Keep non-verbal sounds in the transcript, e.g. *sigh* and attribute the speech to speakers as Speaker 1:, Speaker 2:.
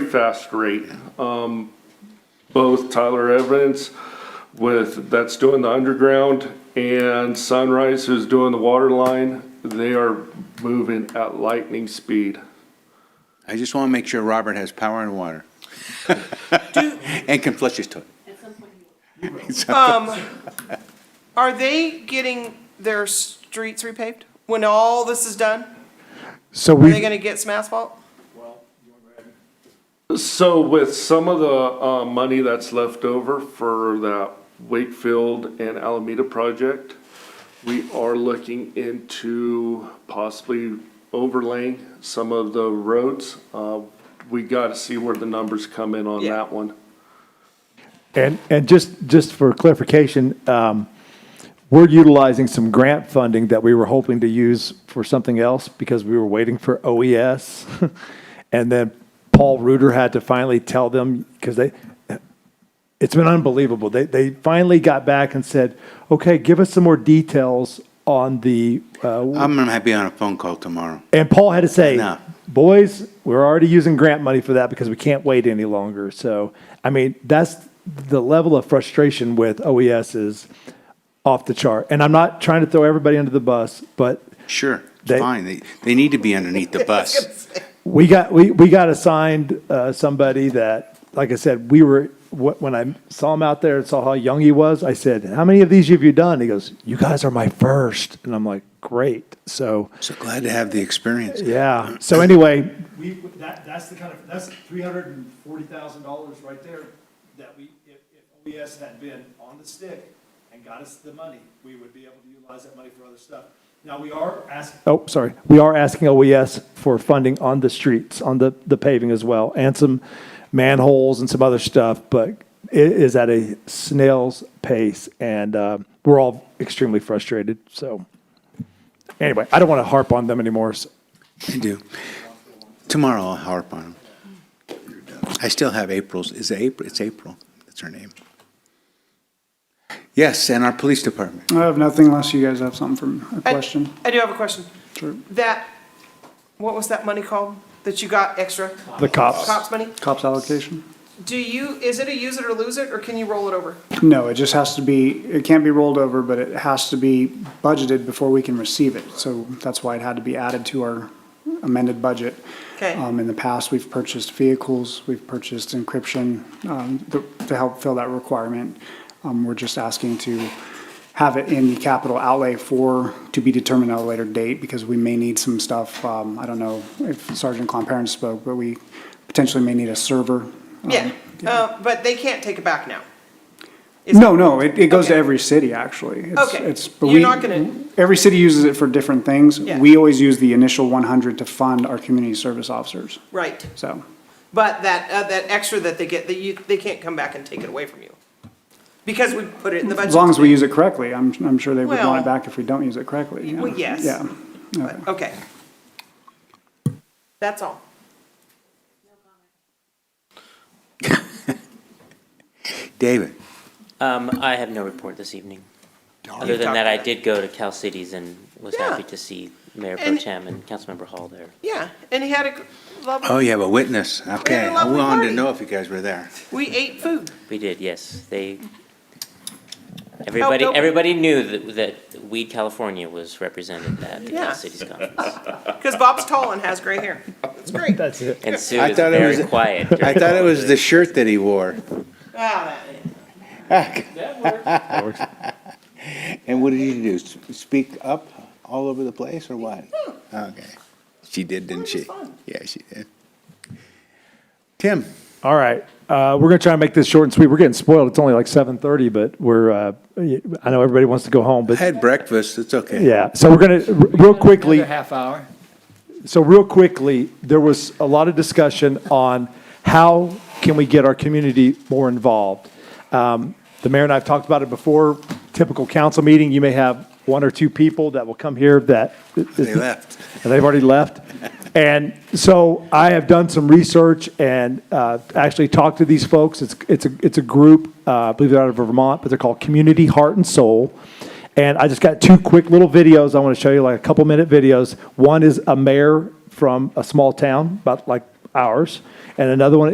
Speaker 1: fast rate. Um, Both Tyler Evans with, that's doing the underground, and Sunrise who's doing the water line, they are moving at lightning speed.
Speaker 2: I just want to make sure Robert has power and water. *laughs* And can flush his toilet.
Speaker 3: Um, are they getting their streets repaved when all this is done?
Speaker 4: So
Speaker 3: Are they
Speaker 4: we,
Speaker 3: gonna get some asphalt?
Speaker 1: So with some of the uh, money that's left over for that Wakefield and Alameda project, we are looking into possibly overlaying some of the roads. Uh, We got to see where the numbers come in on
Speaker 3: Yeah.
Speaker 1: that one.
Speaker 4: and, and just, just for clarification, um, we're utilizing some grant funding that we were hoping to use for something else because we were waiting for OES. *laughs* And then Paul Reuter had to finally tell them, because they, it's been unbelievable. They, they finally got back and said, okay, give us some more details on the, uh,
Speaker 2: I'm going to be on a phone call tomorrow.
Speaker 4: And Paul had to say,
Speaker 2: No.
Speaker 4: "Boys, we're already using grant money for that because we can't wait any longer." So, I mean, that's the level of frustration with OES is off the chart. And I'm not trying to throw everybody under the bus, but
Speaker 2: Sure, it's
Speaker 4: They-
Speaker 2: fine. They, they need to be underneath the bus.
Speaker 4: we got we, we got assigned uh, somebody that, like I said, we were wh- when I saw him out there and saw how young he was. I said, "How many of these have you done?" He goes, "You guys are my first. and I'm like, "Great." So.
Speaker 2: So glad to have the
Speaker 4: *laughs*
Speaker 2: experience.
Speaker 4: Yeah. So anyway,
Speaker 5: We, that, that's the kind of, that's three hundred and forty thousand dollars right there that we, if, if OES had been on the stick and got us the money, we would be able to utilize that money for other stuff. Now, we are asking,
Speaker 4: Oh, sorry. We are asking OES for funding on the streets, on the, the paving as well, and some manholes and some other stuff, but it is at a snail's pace, and uh, we're all extremely frustrated, so. Anyway, I don't want to harp on them anymore. so-
Speaker 2: I do. Tomorrow I'll harp on them. I still have April's, is it April? It's April, that's her name. Yes, and our police department.
Speaker 6: I have nothing unless you guys have something from a
Speaker 3: I-
Speaker 6: question.
Speaker 3: I do have a question.
Speaker 6: Sure.
Speaker 3: That, what was that money called that you got extra?
Speaker 4: The cops.
Speaker 3: Cops money?
Speaker 6: Cops allocation?
Speaker 3: Do you, is it a use it or lose it, or can you roll it over?
Speaker 6: No, it just has to be, it can't be rolled over, but it has to be budgeted before we can receive it. So that's why it had to be added to our amended budget.
Speaker 3: Okay.
Speaker 6: Um, in the past, we've purchased vehicles, we've purchased encryption, um, to, to help fill that requirement. Um, we're just asking to have it in the capital outlay for, to be determined at a later date, because we may need some stuff. Um, I don't know if Sergeant Clonparent spoke, but we potentially may need a server. um,
Speaker 3: Yeah, uh, but they can't take it back now. Is-
Speaker 6: No, no, it, it goes to
Speaker 3: Okay.
Speaker 6: every city, actually. It's-
Speaker 3: Okay.
Speaker 6: It's, but
Speaker 3: You're
Speaker 6: we-
Speaker 3: not gonna-
Speaker 6: Every city uses it for different things.
Speaker 3: Yeah.
Speaker 6: We always use the initial one hundred to fund our community service officers,
Speaker 3: Right,
Speaker 6: so.
Speaker 3: but that, uh, that extra that they get, that you, they can't come back and take it away from you. Because we put it in the budget.
Speaker 6: As long as we use it correctly, I'm, I'm sure they would want
Speaker 3: Well-
Speaker 6: it back if we don't use it correctly. yeah.
Speaker 3: Well, yes.
Speaker 6: Yeah. Okay.
Speaker 3: But, okay. That's all.
Speaker 2: David,
Speaker 7: Um, I have no report this evening. Other than that, I did go to Cal Cities and was
Speaker 3: Yeah.
Speaker 7: happy to see Mayor Pro
Speaker 3: And-
Speaker 7: Tem and Councilmember Hall there.
Speaker 3: Yeah, and he had a
Speaker 2: oh,
Speaker 3: lovely,
Speaker 2: you have a witness, okay. I
Speaker 3: lovely
Speaker 2: wanted
Speaker 3: party.
Speaker 2: to know if you guys were there.
Speaker 3: we ate food.
Speaker 7: We did, yes. They, everybody,
Speaker 3: open-
Speaker 7: everybody knew that, that Weed California was represented at the
Speaker 3: Yeah.
Speaker 7: Cal Cities conference.
Speaker 3: Because Bob's tall and has gray hair. It's great. Wow,
Speaker 4: That's it.
Speaker 7: And Sue
Speaker 2: I
Speaker 7: is
Speaker 2: thought it
Speaker 7: very
Speaker 2: was-
Speaker 7: quiet.
Speaker 2: I
Speaker 7: during
Speaker 2: thought it
Speaker 7: all
Speaker 2: was
Speaker 7: of
Speaker 2: the shirt that he wore.
Speaker 3: that-
Speaker 2: And what did you do? S- Speak up all over the place or what? Okay. She did, didn't she? Yeah, she did. Tim,
Speaker 4: All right, uh, we're gonna try and make this short and sweet. We're getting spoiled. It's only like seven thirty, but we're, uh, I know everybody wants to go home,
Speaker 2: I
Speaker 4: but
Speaker 2: had breakfast. It's okay.
Speaker 4: yeah. So we're gonna, r- real quickly.
Speaker 5: half hour.
Speaker 4: So real quickly, there was a lot of discussion on how can we get our community more involved? Um, The mayor and I have talked about it before, typical council meeting, you may have one or two people that will come here that.
Speaker 2: They left.
Speaker 4: And *laughs* they've already left. And so I have done some research and uh, actually talked to these folks. It's, it's, a it's a group, uh, I believe they're out of Vermont, but they're called Community Heart and Soul. And I just got two quick little videos I want to show you, like a couple minute videos. One is a mayor from a small town, about like ours, and another one